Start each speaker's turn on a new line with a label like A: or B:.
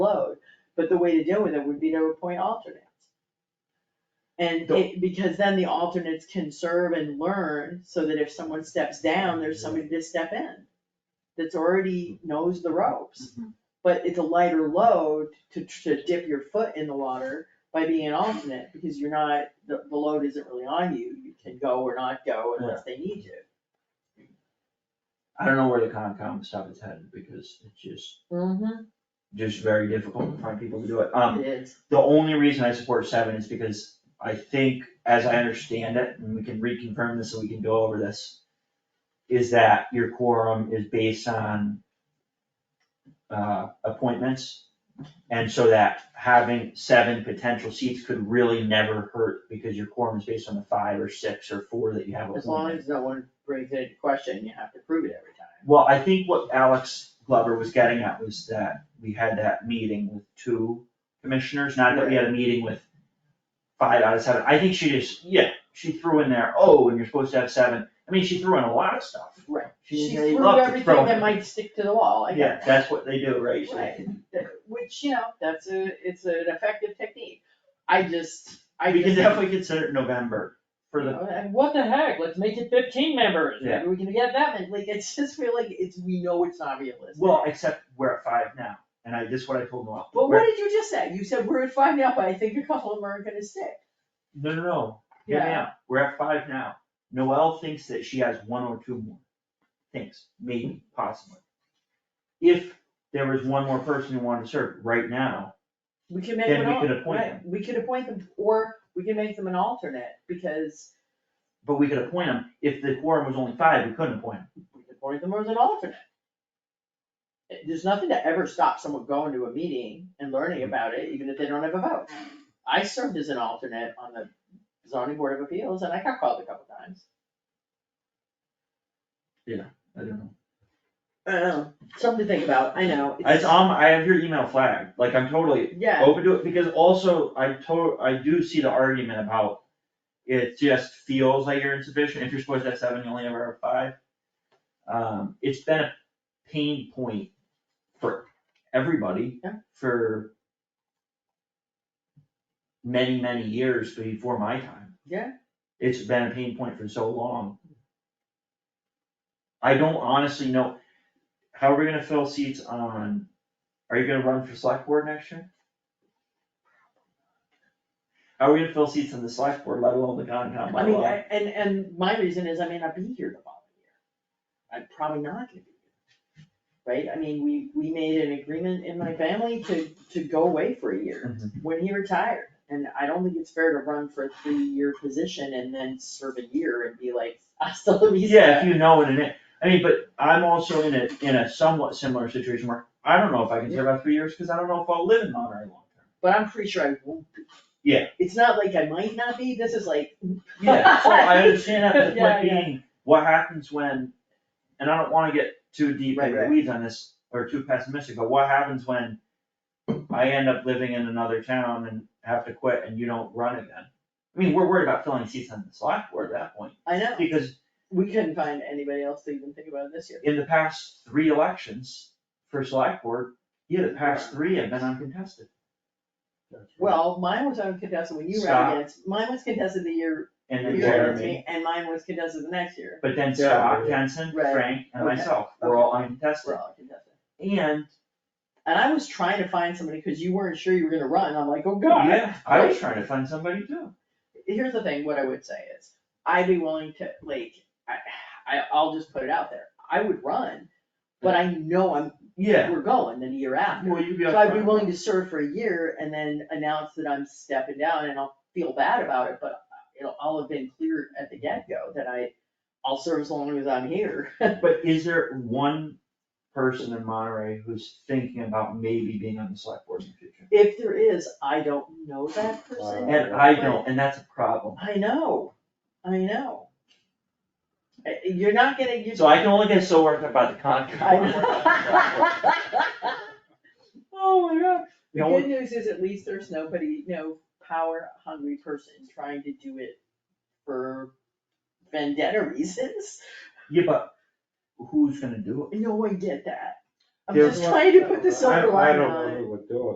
A: load, but the way to deal with it would be to appoint alternates. And it, because then the alternates can serve and learn, so that if someone steps down, there's somebody to step in that's already knows the ropes. But it's a lighter load to, to dip your foot in the water by being an alternate, because you're not, the, the load isn't really on you, you can go or not go unless they need you.
B: I don't know where the Concom stuff is headed, because it's just,
A: Mm-hmm.
B: just very difficult to find people to do it. Um,
A: It is.
B: the only reason I support seven is because I think, as I understand it, and we can reconfirm this and we can go over this, is that your quorum is based on uh, appointments. And so that having seven potential seats could really never hurt because your quorum is based on the five or six or four that you have appointed.
A: As long as no one brings it into question, you have to prove it every time.
B: Well, I think what Alex Glover was getting at was that we had that meeting with two commissioners, not that we had a meeting with five out of seven. I think she just, yeah, she threw in there, oh, and you're supposed to have seven. I mean, she threw in a lot of stuff.
A: Right.
B: She
A: She
B: really
A: threw
B: loved to throw.
A: everything that might stick to the wall, I
B: Yeah,
A: guess.
B: that's what they do, right? So-
A: Right, That- which, you know, that's a, it's an effective technique. I just, I
B: We can
A: just.
B: definitely consider it November for the,
A: And what the heck, let's make it fifteen members,
B: Yeah.
A: maybe we can get that many, like, it's just feel like it's, we know it's not realistic.
B: well, except we're at five now, and I, this is what I told Noel.
A: But what did you just say? You said we're at five now, but I think a couple of them are gonna stick.
B: No, no, no, hear me out. We're at five now. Noelle thinks that she has one or two more. Thinks, maybe, possibly. If there was one more person who wanted to serve right now,
A: We can make
B: Then
A: them
B: we
A: all,
B: could appoint
A: right, we could appoint them, or we can make them an alternate, because
B: but we could appoint them. If the quorum was only five, we couldn't appoint them.
A: we could appoint them as an alternate. It- There's nothing to ever stop someone going to a meeting and learning about it, even if they don't have a vote. I served as an alternate on the zoning board of appeals, and I got called a couple times.
B: I don't know.
A: I know, something to think about, I know.
B: It's on, I Oh. have your email flagged, like I'm totally
A: Yeah,
B: open to it, because also I to, I do see the argument about it just feels like you're insufficient, if you're supposed to have seven, you only ever have five. Um, it's been a pain point for everybody
A: Yeah.
B: for many, many years before my time.
A: Yeah.
B: It's been a pain point for so long. I don't honestly know, how are we gonna fill seats on, are you gonna run for select board next year? How are we gonna fill seats on the select board, let alone the Concom?
A: I mean, I- and, and my reason is I may not be here the following year. I'm probably not gonna be here. Right, I mean, we, we made an agreement in my family to, to go away for a year when he retired. And I don't think it's fair to run for a three-year position and then serve a year and be like, I still la vista.
B: Yeah, if you know it and it, I mean, but I'm also in a, in a somewhat similar situation where I don't know if I can serve out three years, cause I don't know if I'll live in Monterey long term.
A: But I'm pretty sure I won't be.
B: Yeah.
A: It's not like I might not be, this is like.
B: Yeah, so I understand that, but the
A: Yeah,
B: point
A: yeah.
B: being, what happens when, and I don't wanna get too deep
A: Right,
B: into the
A: right.
B: weeds on this, or too pessimistic, but what happens when I end up living in another town and have to quit and you don't run again? I mean, we're worried about filling seats on the select board at that point,
A: I know,
B: because
A: we couldn't find anybody else to even think about it this year.
B: in the past three elections for select board, yeah, the past three have been uncontested.
A: Well, mine was uncontested when you
B: Scott.
A: ran against, mine was contested the year
B: And
A: you
B: then
A: ran against
B: Jeremy,
A: me, and mine was contested the next year,
B: but then
C: Yeah.
B: Scott, Jensen,
A: Right.
B: Frank, and
A: Okay.
B: myself, we're all uncontested.
A: we're all contested.
B: And,
A: And I was trying to find somebody, cause you weren't sure you were gonna run, I'm like, oh god.
B: yeah, I was trying to find somebody too.
A: here's the thing, what I would say is, I'd be willing to, like, I, I, I'll just put it out there, I would run, but I know I'm,
B: Yeah,
A: we're going the year after.
B: well, you'd be.
A: So I'd be
B: upfront.
A: willing to serve for a year and then announce that I'm stepping down and I'll feel bad about it, but it'll all have been clear at the get-go that I, I'll serve as long as I'm here.
B: But is there one person in Monterey who's thinking about maybe being on the select board in the future?
A: If there is, I don't know that person.
B: And I don't, and that's a problem.
A: I know, I know. Uh, You're not gonna, you
B: So I can only get so worked up about the
A: I
B: Concom.
A: know. Oh my god, the
B: You know,
A: good news is at least there's nobody, no power hungry person trying to do it for vendetta reasons.
B: Yeah, but who's gonna do it?
A: No, I get that. I'm
C: There's
A: just
C: one-
A: trying to put the silver lining on it.
C: I, I don't know who would do it.